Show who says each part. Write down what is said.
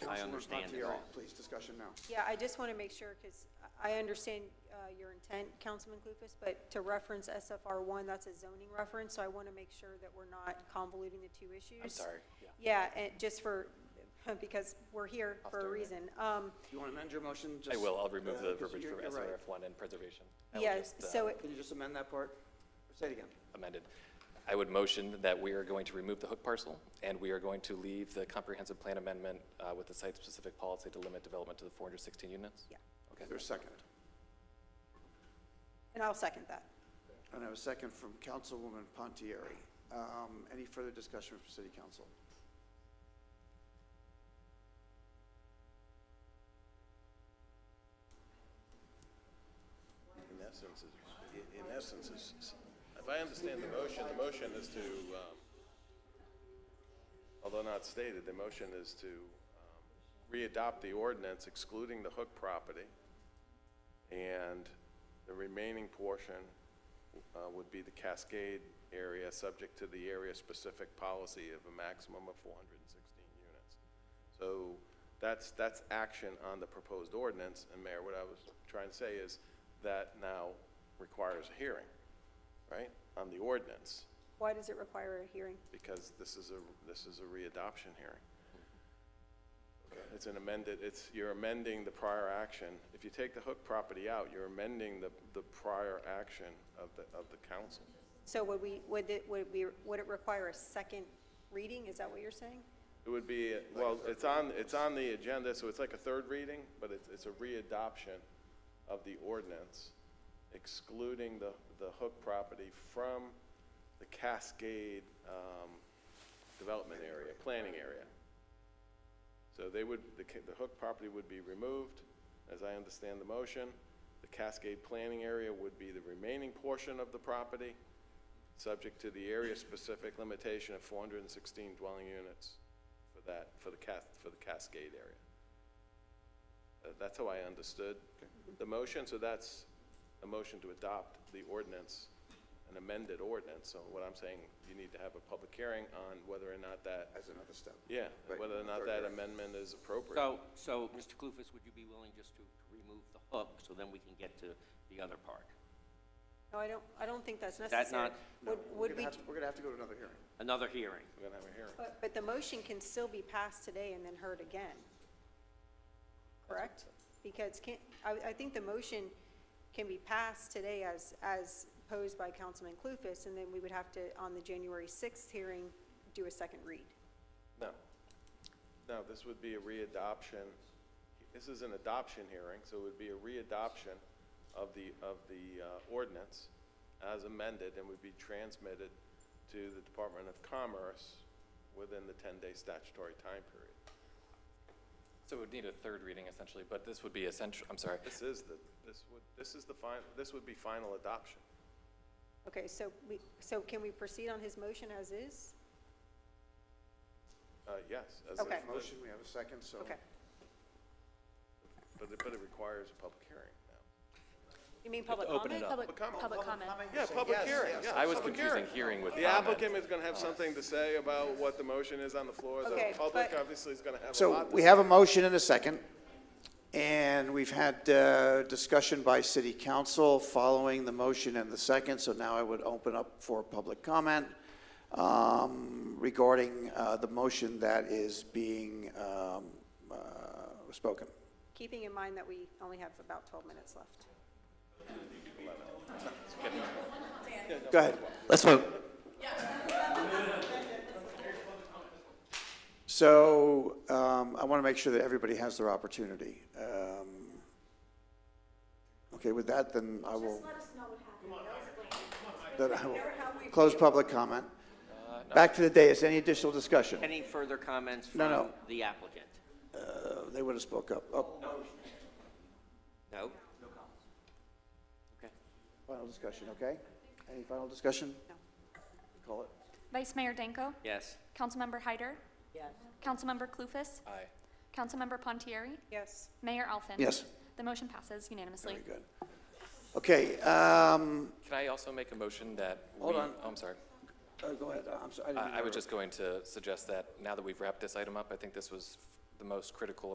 Speaker 1: Councilwoman
Speaker 2: understand it
Speaker 1: Montiero,
Speaker 2: all.
Speaker 1: Please, discussion now.
Speaker 3: Yeah, I just want to make sure, because I understand uh, your intent, Councilman Clufus, but to reference SFR one, that's a zoning reference, so I want to make sure that we're not convoluting the two issues.
Speaker 2: sorry, yeah.
Speaker 3: and just for, because we're here
Speaker 2: I'll
Speaker 3: for a
Speaker 2: start it.
Speaker 3: reason. Um,
Speaker 1: Do you want to amend your motion?
Speaker 2: I
Speaker 1: Just-
Speaker 2: will, I'll remove
Speaker 1: Yeah,
Speaker 2: the
Speaker 1: 'cause
Speaker 2: verbiage
Speaker 1: you're-
Speaker 2: from
Speaker 1: you're right.
Speaker 2: SRF one and preservation. I will
Speaker 3: Yes,
Speaker 2: just, uh,
Speaker 3: so, it-
Speaker 1: Can you just amend that part? Say it again.
Speaker 2: Amended. I would motion that we are going to remove the hook parcel, and we are going to leave the comprehensive plan amendment uh, with the site-specific policy to limit development to the 416 units?
Speaker 3: yeah,
Speaker 1: Okay, there's a second.
Speaker 3: and I'll second that.
Speaker 1: And I have a second from Councilwoman Pontieri. Um, Any further discussion from City Council?
Speaker 4: In essence, is- i- in essence, is, if I understand the motion, the motion is to, um, although not stated, the motion is to um, readopt the ordinance excluding the Hook property, and the remaining portion uh, would be the Cascade area, subject to the area-specific policy of a maximum of 416 units. So that's, that's action on the proposed ordinance, and Mayor, what I was trying to say is that now requires a hearing, right, on the ordinance,
Speaker 3: Why does it require a hearing?
Speaker 4: because this is a, this is a readoption hearing. It's an amended, it's, you're amending the prior action. If you take the Hook property out, you're amending the, the prior action of the, of the council.
Speaker 3: So would we, would it, would we, would it require a second reading? Is that what you're saying?
Speaker 4: It would be, well, it's on, it's on the agenda, so it's like a third reading, but it's, it's a readoption of the ordinance excluding the, the Hook property from the Cascade, um, development area, planning area. So they would, the, ca- the Hook property would be removed, as I understand the motion. The Cascade planning area would be the remaining portion of the property, subject to the area-specific limitation of 416 dwelling units for that, for the Cas, for the Cascade area. Uh, That's how I understood the motion, so that's a motion to adopt the ordinance, an amended ordinance. So what I'm saying, you need to have a public hearing on whether or not that,
Speaker 1: As another step.
Speaker 4: yeah,
Speaker 1: Right,
Speaker 4: whether or not
Speaker 1: third
Speaker 4: that
Speaker 1: hearing.
Speaker 4: amendment is appropriate.
Speaker 5: So, so, Mr. Clufus, would you be willing just to to remove the hook, so then we can get to the other part?
Speaker 3: No, I don't, I don't think that's
Speaker 5: that
Speaker 3: necessary.
Speaker 5: not-
Speaker 1: No,
Speaker 3: Would,
Speaker 1: we're
Speaker 3: would
Speaker 1: gonna
Speaker 3: we,
Speaker 1: have to- We're going to have to go to another hearing.
Speaker 5: Another hearing.
Speaker 4: We're gonna have a hearing.
Speaker 3: but, but the motion can still be passed today and then heard again, correct? Because can, I, I think the motion can be passed today as, as posed by Councilman Clufus, and then we would have to, on the January sixth hearing, do a second read.
Speaker 4: No. No, this would be a readoption. This is an adoption hearing, so it would be a readoption of the, of the uh, ordinance as amended and would be transmitted to the Department of Commerce within the 10-day statutory time period.
Speaker 2: So it would need a third reading essentially, but this would be essential, I'm sorry.
Speaker 4: This is the, this would, this is the final, this would be final adoption.
Speaker 3: Okay, so we, so can we proceed on his motion as is?
Speaker 4: Uh, Yes. as
Speaker 3: Okay.
Speaker 4: amended,
Speaker 1: Motion, we have a second, so.
Speaker 3: Okay.
Speaker 4: But it, but it requires a public hearing now.
Speaker 3: You mean public
Speaker 2: Open
Speaker 3: comment?
Speaker 2: it up.
Speaker 6: Public, public comment.
Speaker 4: Yeah, public hearing, yeah.
Speaker 2: I was
Speaker 4: public
Speaker 2: confusing
Speaker 4: hearing.
Speaker 2: hearing with
Speaker 4: The
Speaker 2: comment.
Speaker 4: applicant is gonna have something to say about what the motion is on the floor,
Speaker 3: Okay,
Speaker 4: the public
Speaker 3: but-
Speaker 4: obviously is gonna have a
Speaker 1: So
Speaker 4: lot to
Speaker 1: we
Speaker 4: say.
Speaker 1: have a motion and a second, and we've had uh, discussion by city council following the motion and the second, so now I would open up for public comment um, regarding uh, the motion that is being um, uh, spoken.
Speaker 3: Keeping in mind that we only have about twelve minutes left.
Speaker 1: Go ahead.
Speaker 7: Let's vote.
Speaker 1: So um, I want to make sure that everybody has their opportunity. Um, Okay, with that, then I will. Then I will close public comment.
Speaker 2: Uh,
Speaker 1: Back to the dais, any additional discussion?
Speaker 5: Any further comments
Speaker 1: No,
Speaker 5: from
Speaker 1: no.
Speaker 5: the applicant?
Speaker 1: Uh, They would have spoke up. Oh,
Speaker 5: No? No comments. Okay.
Speaker 1: final discussion, okay? Any final discussion?
Speaker 3: No.
Speaker 1: Call it.
Speaker 6: Vice Mayor Danko?
Speaker 5: Yes.
Speaker 6: Councilmember Hyder? Yes. Councilmember Clufus?
Speaker 2: Aye.
Speaker 6: Councilmember Pontieri?
Speaker 3: Yes.
Speaker 6: Mayor Alfin?
Speaker 1: Yes.
Speaker 6: The motion passes unanimously.
Speaker 1: Very good. Okay, um,
Speaker 2: Can I also make a motion that we?
Speaker 1: Hold on.
Speaker 2: oh, I'm sorry.
Speaker 1: oh, go ahead, I'm sorry. didn't mean
Speaker 2: I I
Speaker 1: to interrupt.
Speaker 2: was just going to suggest that now that we've wrapped this item up, I think this was the most critical